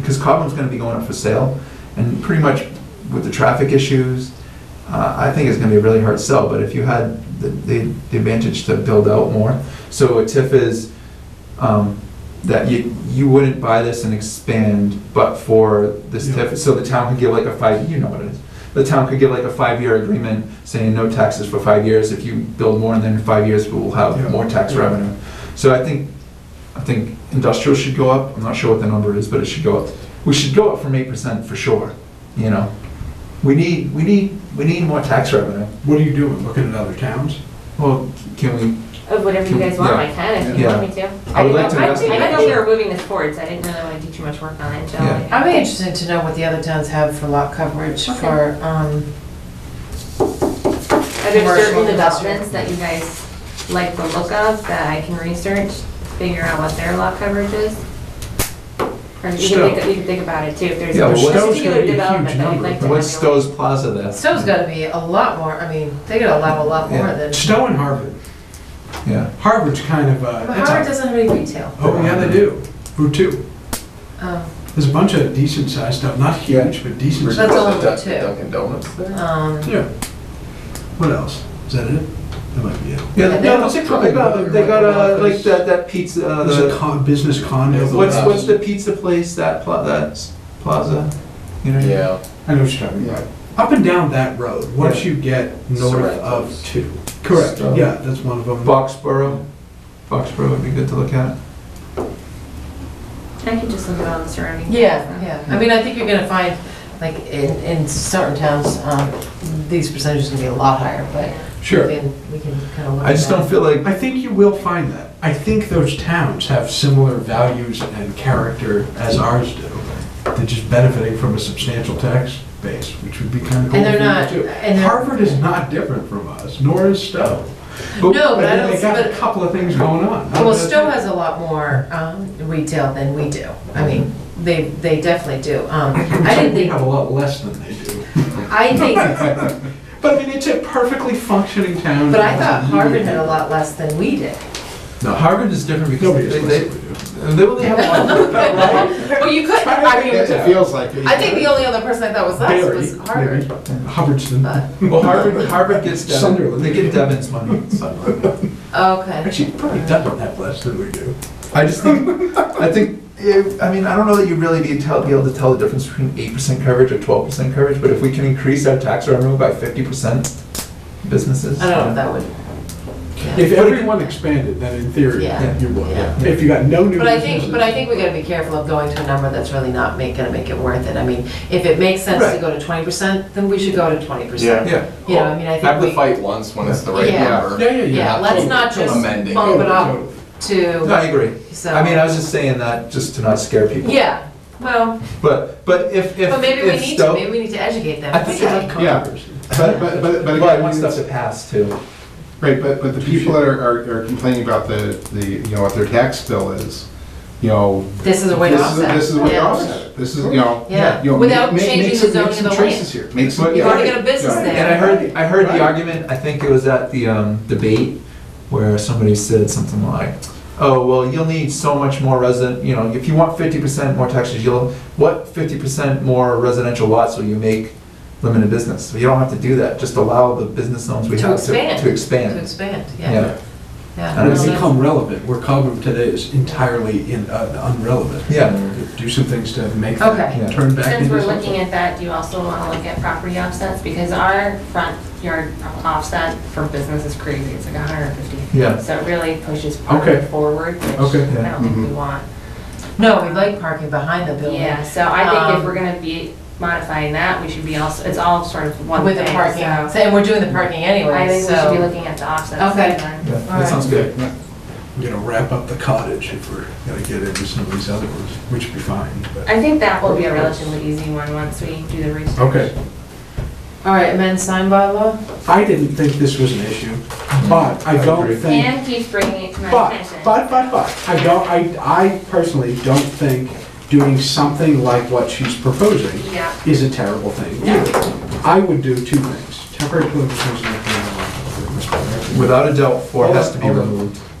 because Cobham's gonna be going up for sale, and pretty much with the traffic issues, uh, I think it's gonna be a really hard sell, but if you had the, the the advantage to build out more, so a TIF is, um, that you, you wouldn't buy this and expand but for this Yeah. TIF, so the town could give like a five, you know what it is. The town could give like a five-year agreement saying no taxes for five years, if you build more than five years, we'll Yeah. have more tax Yeah. revenue. So I think, I think industrial should go up, I'm not sure what the number is, but it should go up. We should go up from eight percent for sure, you know? We need, we need, we need more tax revenue. What are you doing, looking at other towns? Well, can we, Of whatever you guys want, I can, if you want me to. I would like to didn't know- I investigate didn't know we that. were moving this forward, so I didn't really want to do too much work on it, Jill. Yeah. I'd be interested to know what the other towns have for lot coverage Okay. for, um, Are there Commercial, certain industrial. developments that you guys like the look of, that I can research, figure out what their lot coverage is? Or you Stowe. can think, you can think about it too, if there's Yeah, a but what's- Stowe's gonna particular be a development huge that you'd number. like to. what's have your- Stowe's Plaza there? Stowe's gotta be a lot more, I mean, they gotta allow a lot more Yeah. than. Stowe and Harvard. Yeah, Harvard's kind of But a, it's Harvard a, doesn't have any retail. oh, yeah, they do. Route two. Um, There's a bunch of decent sized stuff, not huge, but decent That's sized. all we do. Dunkin' Donuts there? um, Yeah. What else? Is that it? That might be it. yeah, Yeah, no, they no, don't- they got, they got, uh, like, that, that pizza, uh, There's the- a con, business condo. There's a What's, lot. what's the pizza place, that pla, that's plaza? You know? Yeah. I know what you're talking about. Up and down that road, once you get north of Sorrento's. two. Correct, Stowe. yeah, that's one of them. Foxborough, Foxborough would be good to look at. I can just look at all the surrounding. yeah, yeah, I mean, I think you're gonna find, like, in, in certain towns, um, these percentages can be a lot higher, but we can, we can kinda look at I just don't that. feel like, I think you will find that. I think those towns have similar values and character as ours do. They're just benefiting from a substantial tax base, which would be kind of cool. And they're for you not- too. and they're- Harvard is not different from us, nor is Stowe. No, but I don't, They got a but, couple of things going on. well, Stowe has a lot more, um, retail than we do, I mean, they, they definitely do, um, I didn't We think, have a lot less than they do. I think But I mean, it's a perfectly functioning town. But I thought Harvard had a lot less than we did. no, Harvard is different Nobody because they, is they, less than we do. they only have one. Well, you could, I mean, It feels like it. I think the only other person I thought was us was Barry, Harvard. maybe. Hubbardston. But, Well, Harvard, Harvard gets Devon, Sunderland. they get Devon's money, so. okay. Actually, probably doesn't have less than we do. I just think, I think, eh, I mean, I don't know that you really be tell, be able to tell the difference between eight percent coverage or twelve percent coverage, but if we can increase our tax revenue by fifty percent, businesses. I don't know if that would. If yeah. everyone expanded, then in theory, Yeah. you would. Yeah. If you got no new But I think, but I businesses. think we gotta be careful of going to a number that's really not make, gonna make it worth it. I mean, if it makes sense to Right. go to twenty percent, then we should go to twenty percent. Yeah, You know, I mean, I Have the think we, fight once when it's the right Yeah. number. Yeah, yeah, yeah. yeah, let's not just Amend it. bump it up Totally. no, I to, agree. so. I mean, I was just saying that just to not scare people. Yeah, well, But, but if, if. but maybe we if need to, Stowe- maybe we need to educate them. I think it would Yeah. But, but, but, but But I want again, stuff to it's- pass too. right, but, but the people that are, are are complaining about the, the, you know, what their tax bill is, you know. This is a way to this is- offset. This is a way to Yeah. offset it. This is, you know. Yeah, you know, without make- make- changing make the some- zoning make of the some land. choices here. Make some. But You've yeah. already got a business Yeah. there. And I heard, I heard Right. the argument, I think it was at the um, debate, where somebody said something like, oh, well, you'll need so much more resident, you know, if you want fifty percent more taxes, you'll, what fifty percent more residential lots will you make limited business? So You don't have to do that, just allow the business zones we To have expand. to To expand. expand, yeah, Yeah, yeah. I And don't No, it's see- that's- become relevant, where Cobham today is entirely in, uh, unrelevant. yeah, Do some things to make Okay. Yeah. that turn back Since into we're looking something. at that, do you also want to look at property offsets? Because our front yard offset for business is crazy, it's like 150 feet. Yeah. So it really pushes parking Okay. forward, which Okay. Mm-hmm. I don't think we Mhm. want. No, we like parking behind the building. Yeah, so I think Um, if we're going to be modifying that, we should be also, it's all sort of one thing. With the parking, so So- and we're doing the parking I anyway, think we should be so. looking at the offsets. Okay. then. yeah, Alright. that sounds good. We're gonna wrap up the cottage if we're gonna get into some of these other ones, which would be fine, but. I think that will be a relatively easy one once we do the research. Okay. All right, amend sign by law? I didn't think this was an issue, but I I don't agree. think. And keeps bringing it to my But, attention. but, but, but, I don't, I, I personally don't think doing something like what she's proposing Yeah. is a terrible thing either. I would do two things, temporary political prisoners. Without a doubt, four has to be Hold on. removed.